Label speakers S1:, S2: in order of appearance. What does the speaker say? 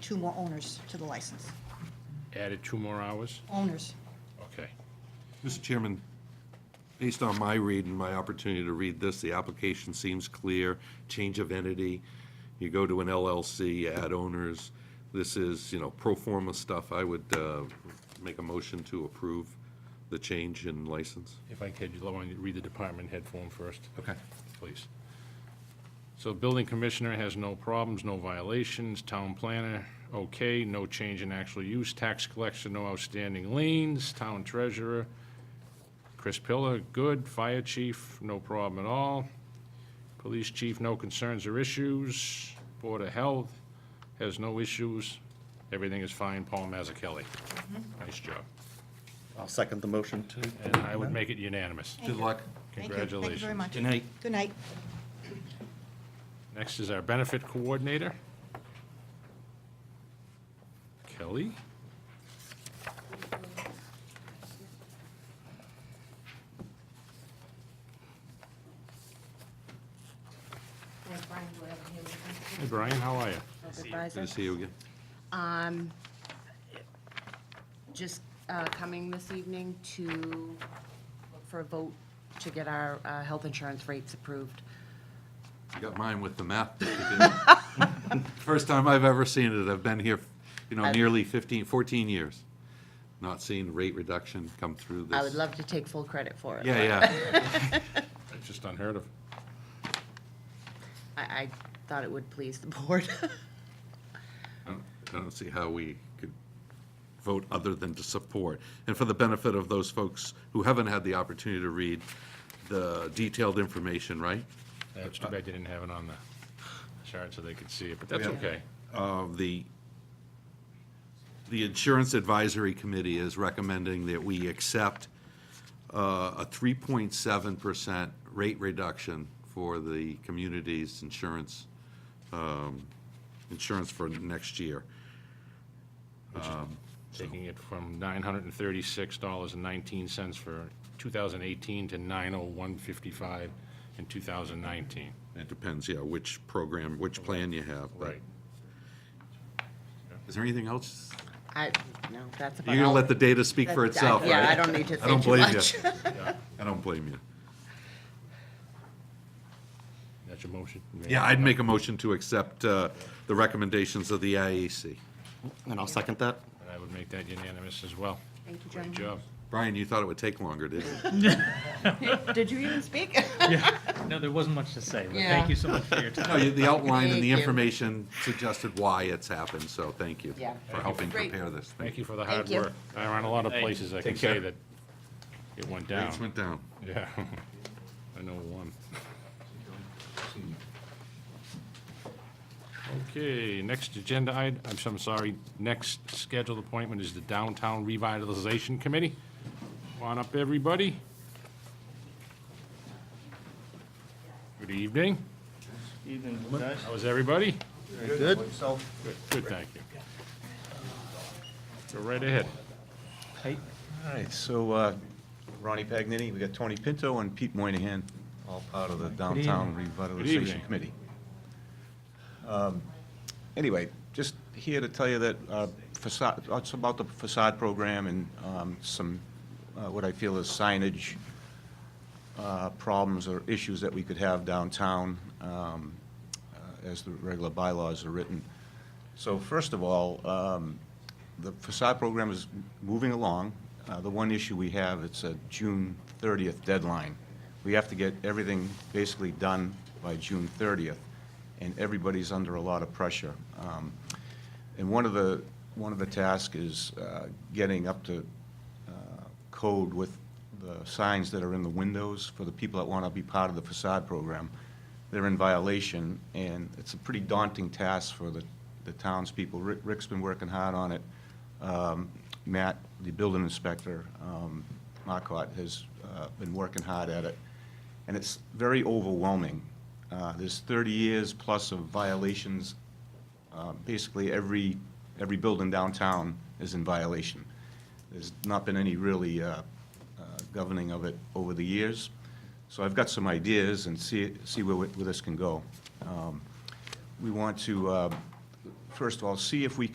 S1: two more owners to the license.
S2: Added two more hours?
S1: Owners.
S2: Okay.
S3: Mr. Chairman, based on my read and my opportunity to read this, the application seems clear, change of entity, you go to an LLC, you add owners, this is, you know, pro forma stuff, I would uh, make a motion to approve the change in license.
S2: If I could, allow me to read the department head form first.
S3: Okay.
S2: Please. So building commissioner has no problems, no violations, town planner, okay, no change in actual use, tax collector, no outstanding liens, town treasurer, Chris Pillar, good, fire chief, no problem at all, police chief, no concerns or issues, board of health has no issues, everything is fine, Paul Mazzucchelli. Nice job.
S4: I'll second the motion to.
S2: And I would make it unanimous.
S3: Good luck.
S1: Thank you. Thank you very
S2: Congratulations.
S1: much.
S4: Good night.
S1: Good night.
S2: Next is our benefit coordinator. Kelly?
S5: Thanks, Brian, for having me.
S2: Hey Brian, how are you?
S3: Good to see you again.
S5: Just uh, coming this evening to look for a vote to get our uh, health insurance rates approved.
S3: You got mine with the math. that you did. First time I've ever seen it, I've been here, you know,
S5: I've-
S3: nearly 15, 14 years, not seeing rate reduction come through this.
S5: I would love to take full credit for it.
S3: Yeah, yeah.
S2: That's just unheard of.
S5: I, I thought it would please the board.
S3: I don't- I don't see how we could vote other than to support. And for the benefit of those folks who haven't had the opportunity to read the detailed information, right?
S2: It's too bad you didn't have it on the chart so they could see it, but that's
S3: uh, Yeah.
S2: okay.
S3: of the, the Insurance Advisory Committee is recommending that we accept uh, a 3.7% rate reduction for the community's insurance, um, insurance for next year.
S2: Taking it from nine hundred and thirty-six dollars and nineteen cents for two thousand eighteen to nine oh one fifty-five in two thousand nineteen.
S3: It depends, yeah, which program, which plan you have. but-
S2: Right.
S3: Is there anything else?
S5: I, no, that's about
S3: You're
S5: all.
S3: going to let the data speak for
S5: That-
S3: itself,
S5: Yeah, I
S3: right?
S5: don't need to
S3: I don't
S5: say too
S3: blame
S5: much.
S3: you. I don't blame you.
S2: That's your motion?
S3: Yeah, I'd make a motion to accept uh, the recommendations of the IAC.
S4: And I'll second that.
S2: And I would make that unanimous as well.
S5: Thank you,
S2: Great
S5: gentlemen.
S2: job.
S3: Brian, you thought it would take longer, didn't you?
S5: Did you even speak?
S6: No, there wasn't much to say, but
S5: Yeah.
S6: thank you so much for your time.
S3: No, you- the outline and
S5: Thank
S3: the
S5: you.
S3: information suggested why it's happened, so thank you
S5: Yeah.
S3: for helping
S5: Great.
S3: prepare this.
S2: Thank you for the
S5: Thank
S2: hard
S5: you.
S2: work. I ran a lot of
S6: Thank you.
S2: places I can
S3: Take
S2: say
S3: care.
S2: that it went
S3: Rates
S2: down.
S3: went down.
S2: Yeah, I know one. Okay, next agenda item, I'm, so- I'm sorry, next scheduled appointment is the Downtown Revitalization Committee. Come on up, everybody. Good evening.
S6: Evening, guys.
S2: How is everybody?
S4: Good.
S2: Good, good, thank you. Go right ahead.
S7: All right, so uh, Ronnie Pagnini, we got Tony Pinto and Pete Moynihan, all part of the Downtown
S2: evening.
S7: Revitalization Committee. Um, Anyway, just here to tell you that uh, facade, it's about the facade program and um, some, uh, what I feel is signage uh, problems or issues that we could have downtown um, uh, as the regular bylaws are written. So first of all, um, the facade program is moving along. Uh, The one issue we have, it's a June 30th deadline. We have to get everything basically done by June 30th, and everybody's under a lot of pressure. Um, And one of the, one of the tasks is uh, getting up to uh, code with the signs that are in the windows for the people that want to be part of the facade program. They're in violation, and it's a pretty daunting task for the, the townspeople. Rick- Rick's been working hard on it. Um, Matt, the building inspector, um, Marcotte, has uh, been working hard at it. And it's very overwhelming. Uh, There's 30 years plus of violations uh, basically every, every building downtown is in violation. There's not been any really uh, uh, governing of it over the years. So I've got some ideas and see, see where, we- where this can go. Um, We want to, uh, first of all, see if we